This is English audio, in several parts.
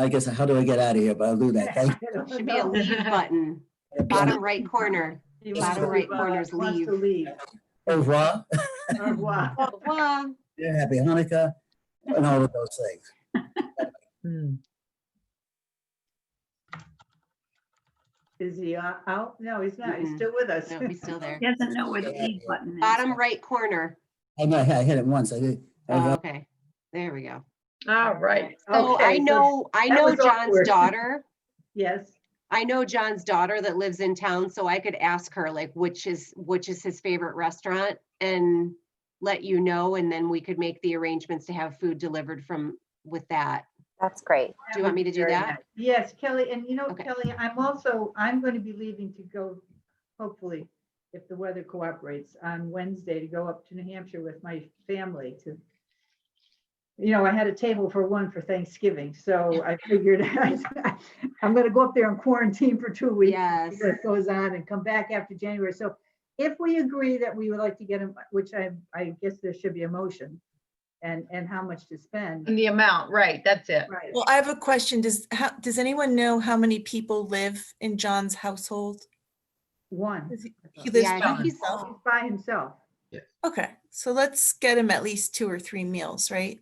I guess, how do I get out of here? But I'll do that. Thank Should be a leave button, you. bottom right corner. He Bottom wants to, right uh, corner's wants to Au revoir. leave. Au revoir. Au revoir. Yeah, Happy Hanukkah and all of those things. Hmm. Is he o- out? No, he's not. He's Mm-mm. still with us. No, he's still there. He doesn't know where the leave button is. Bottom right corner. I know, I hit it once. I did. I Oh, got- Okay, there we go. All right. So Okay, I know, I that know was John's awkward. daughter. Yes, I know John's daughter that lives in town, so I could ask her like which is, which is his favorite restaurant and let you know, and then we could make the arrangements to have food delivered from, with that. That's great. Do you want me to do Very that? nice. yes, Kelly. And you know, Okay. Kelly, I'm also, I'm going to be leaving to go, hopefully, if the weather cooperates, on Wednesday to go up to New Hampshire with my family to, you know, I had a table for one for Thanksgiving, so I figured I'm going to go up there and quarantine for two weeks. Yes. see what goes on and come back after January. So if we agree that we would like to get him, which I, I guess there should be a motion and, and how much to spend. And the amount, right, that's it. Right. Well, I have a question. Does, how, does anyone know how many people live in John's household? One, Is he- He Yeah, lives I by think he's- himself? he's by himself. Okay, so let's get him at least two or three meals, right?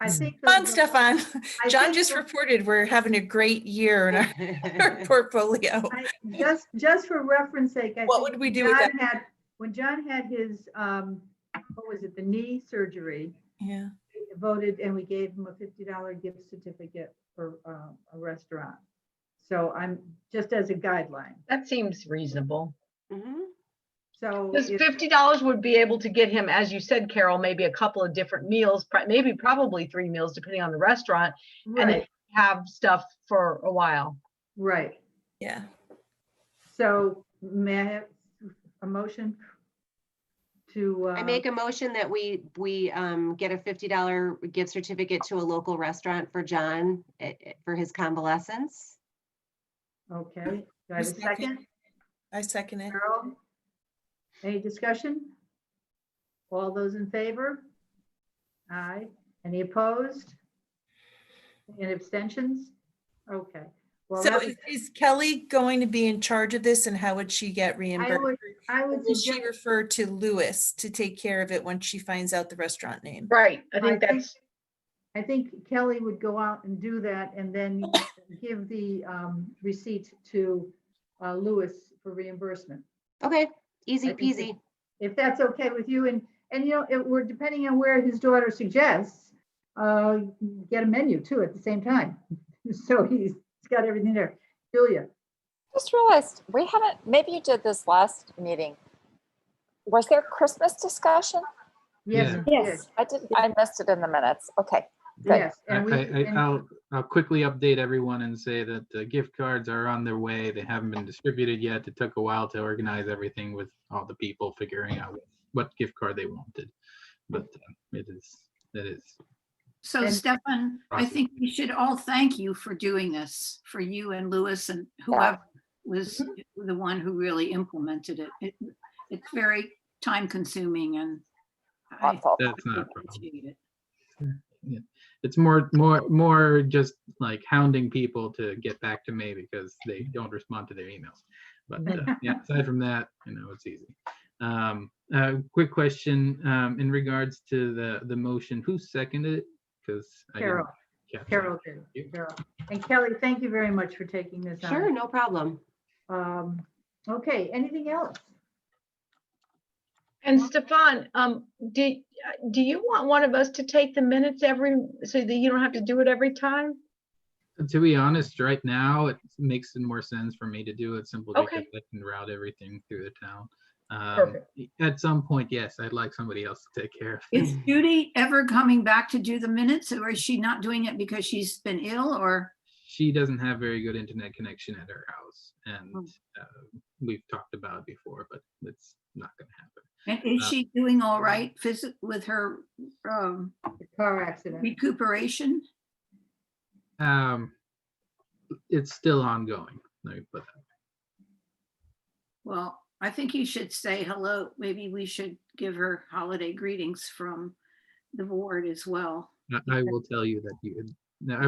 I think. Come on, those- Stefan. I John think just those- reported we're having a great year in our- our portfolio. I- Just, just for reference sake. I What think would we do with John had- When John had his, um, what was it, the knee surgery, Yeah, we voted and we gave him a fifty dollar gift certificate for, um, a restaurant. So I'm, just as a guideline, That seems reasonable. Mhm. so. This if- fifty dollars would be able to get him, as you said, Carol, maybe a couple of different meals, pri- maybe probably three meals, depending on the restaurant, and Right, then have stuff for a while. right. yeah. So may I have a motion to? I uh, make a motion that we, we um, get a $50 gift certificate to a local restaurant for John eh, eh, for his convalescence. Okay, do I have a Just second. second? I second it. Carol? Any discussion? All those in favor? Aye. Any opposed? Any abstentions? Okay. Well, So that is- was- is Kelly going to be in charge of this and how would she get I reimbursed? would, I Or would Will she suggest, refer to Lewis to take care of it once she finds out the restaurant name? Right, I I think, think that's, I think Kelly would go out and do that and then give the um, receipt to uh, Lewis for reimbursement. Okay, easy I think we- peasy. if that's okay with you. And, and you know, it, we're depending on where his daughter suggests, uh, get a menu too at the same time. So he's he's got everything there. Julia, Just realized we haven't, maybe you did this last meeting. Was there Christmas discussion? yes, Yeah. yes, I didn't, I missed it in the minutes. Okay. Good. yes. I, And we, I, I- and- I'll, I'll quickly update everyone and say that the gift cards are on their way. They haven't been distributed yet. It took a while to organize everything with all the people figuring out what gift card they wanted. But uh, it is, it is. And- Yeah. And- So Stefan, I Awesome. think we should all thank you for doing this, for you and Lewis and whoever was Mm-hmm. the one who really implemented it. It- It's very time consuming and I thoughtful. That's not a problem. appreciate it. It's more, more, more just like hounding people to get back to me because they don't respond to their emails. But uh, yeah, aside from that, you know, it's easy. Um, uh, quick question, um, in regards to the, the motion, who seconded it? Because. Carol, Carol, you. did, Carol. And Kelly, thank you very much for taking this on. Sure, no problem. Um, okay, anything else? and Stefan, um, do, do you want one of us to take the minutes every, so that you don't have to do it every time? To be honest, right now, it makes more sense for me to do it simply Okay. because I can route everything through the town. Um, Perfect. at some point, yes, I'd like somebody else to take care of it. Is Judy ever coming back to do the minutes or is she not doing it because she's been ill or? She doesn't have very good internet connection at her house, and Oh. uh, we've talked about it before, but it's not going to happen. And is Uh, she doing all right physi- with her um, The car accident. recuperation? Um, it's still ongoing. Let me put that. Well, I think you should say hello. Maybe we should give her holiday greetings from the board as well. I- I will tell you that you no,